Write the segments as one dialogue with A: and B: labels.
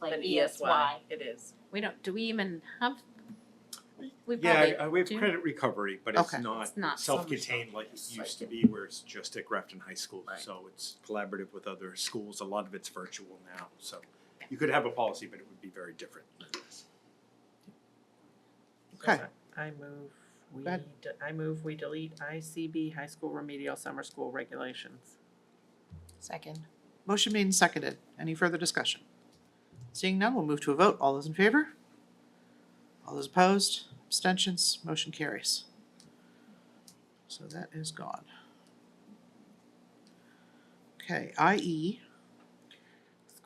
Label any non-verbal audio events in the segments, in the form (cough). A: like
B: an E
A: ESY.
B: It is.
C: E We don't, do we even have? We probably
D: Yeah, uh, we have
C: do.
D: credit recovery, but it's
E: Okay.
C: It's not
D: not
C: so much
D: self-contained like it
B: It's
D: used to
B: like-
D: be where it's just at Grafton High School.
E: Right.
D: So it's collaborative with other schools. A lot of it's virtual now, so you could have a policy, but it would be very different.
E: Okay.
B: I move, we,
E: Go ahead.
B: de- I move we delete ICB high school remedial summer school regulations.
F: Second.
E: Motion made and seconded. Any further discussion? Seeing none, we'll move to a vote. All those in favor? All those opposed? Abstentions? Motion carries. So that is gone. Okay, IE,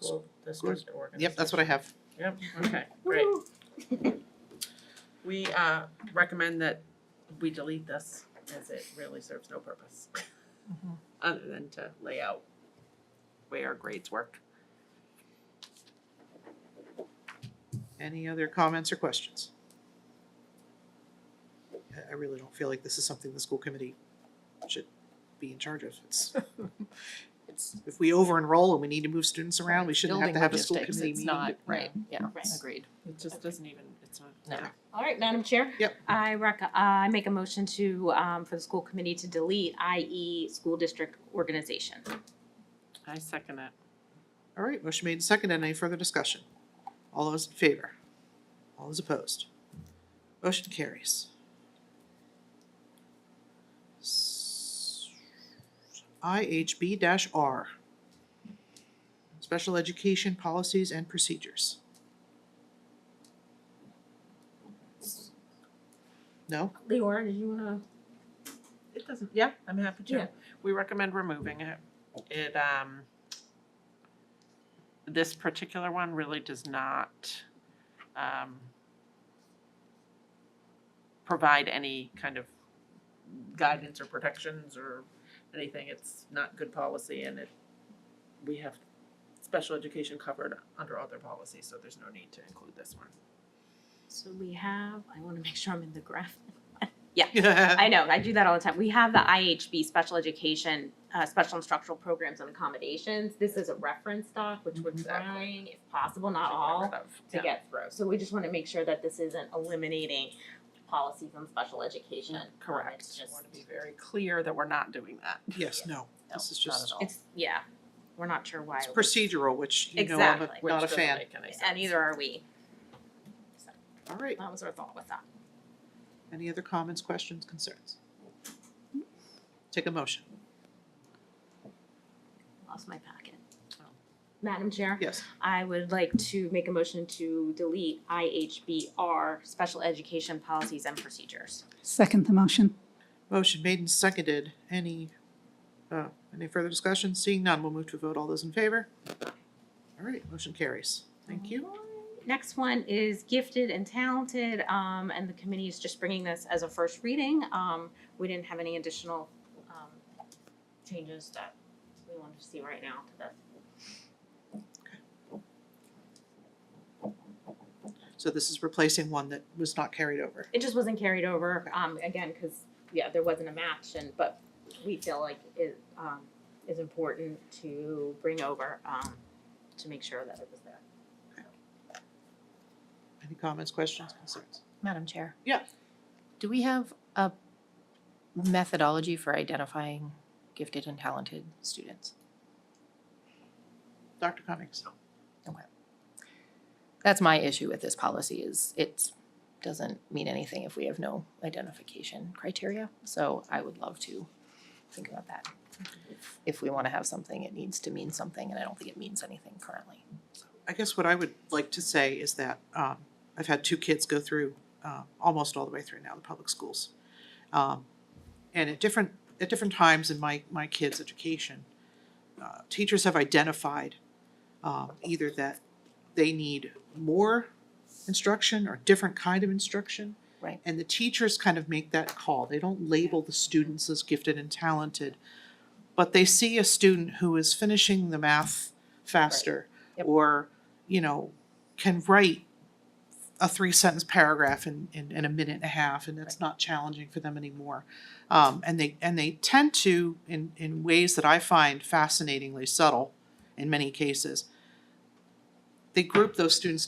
B: School district organization.
E: yep, that's what I have.
B: Yep,
E: (laughs)
B: okay, great. We, uh, recommend that we delete this as it really serves no purpose. Mm-hmm. Other than to lay out way our grades work.
E: Any other comments or questions? I- I really don't feel like this is something the school committee should be in charge of. It's,
F: (laughs)
E: it's, if we over-enroll and we need to move students around, we shouldn't have
F: Building
E: to have a school
F: logistics,
E: committee meeting.
F: It's not,
E: to-
F: right, yeah,
C: Right.
F: agreed.
B: It just doesn't even, it's not.
F: No.
C: All right, Madam Chair.
E: Yep.
C: I rec, uh, I make a motion to, um, for the school committee to delete IE school district organization.
B: I second it.
E: All right, motion made and seconded. Any further discussion? All those in favor? All those opposed? Motion carries. S- IHB dash R. Special Education Policies and Procedures. No? (laughs)
A: Leora, did you wanna?
B: It doesn't, yeah, I'm happy
A: Yeah.
B: to. We recommend removing it. It, um, this particular one really does not, um, provide any kind of guidance or protections or anything. It's not good policy and it, we have special education covered under other policies, so there's no need to include this one.
C: So we have, I wanna make sure I'm in the graph. I know, I do that all the time. We have the IHB, Special Education, uh, Special Instructional Programs and Accommodations. This is a reference doc, which we're
D: Mm-hmm.
B: Exactly.
C: trying, if possible, not
B: to get
C: all,
B: rid of.
C: to get through. So we just wanna make sure that this isn't eliminating policies on special education. Um, It's
B: Correct. I
C: just,
B: want to be very clear that we're not doing that.
E: Yes, no. This is
F: No, not
E: just-
F: at all.
C: it's, yeah, we're not sure why.
E: It's
C: it was-
E: procedural, which you know I'm a-
C: Exactly.
E: not a
B: Which doesn't
E: fan.
B: make any
C: And
B: sense.
C: neither are we.
E: All right,
C: That was our thought with that.
E: any other comments, questions, concerns? Take a motion.
C: Lost my packet. Madam Chair?
E: Yes.
C: I would like to make a motion to delete IHBR, Special Education Policies and Procedures.
G: Second the motion.
E: Motion made and seconded. Any, uh, any further discussion? Seeing none, we'll move to a vote. All those in favor? All right, motion carries. Thank you.
C: Next one is Gifted and Talented, um, and the committee is just bringing this as a first reading. Um, we didn't have any additional, um, changes that we wanted to see right now to this.
E: So this is replacing one that was not carried over.
C: It just wasn't carried over, um, again, because, yeah, there wasn't a match and, but we feel like it, um, is important to bring over, um, to make sure that it was there.
E: Any comments, questions, concerns?
F: Madam Chair.
E: Yeah.
F: Do we have a methodology for identifying gifted and talented students?
E: Dr. Cummings?
F: That's my issue with this policy is it doesn't mean anything if we have no identification criteria. So I would love to think about that. If- If we want to have something, it needs to mean something, and I don't think it means anything currently.
E: I guess what I would like to say is that um, I've had two kids go through uh, almost all the way through now the public schools, um, and at different at different times in my my kids' education, uh, teachers have identified um, either that they need more instruction or different kind of instruction.
F: Right.
E: And the teachers kind of make that call. They don't label the students as gifted and talented, but they see a student who is finishing the math faster
F: Yep.
E: or you know, can write a three sentence paragraph in, in, in a minute and a half, and it's not challenging for them anymore. Um, and they, and they tend to, in, in ways that I find fascinatingly subtle in many cases, they group those students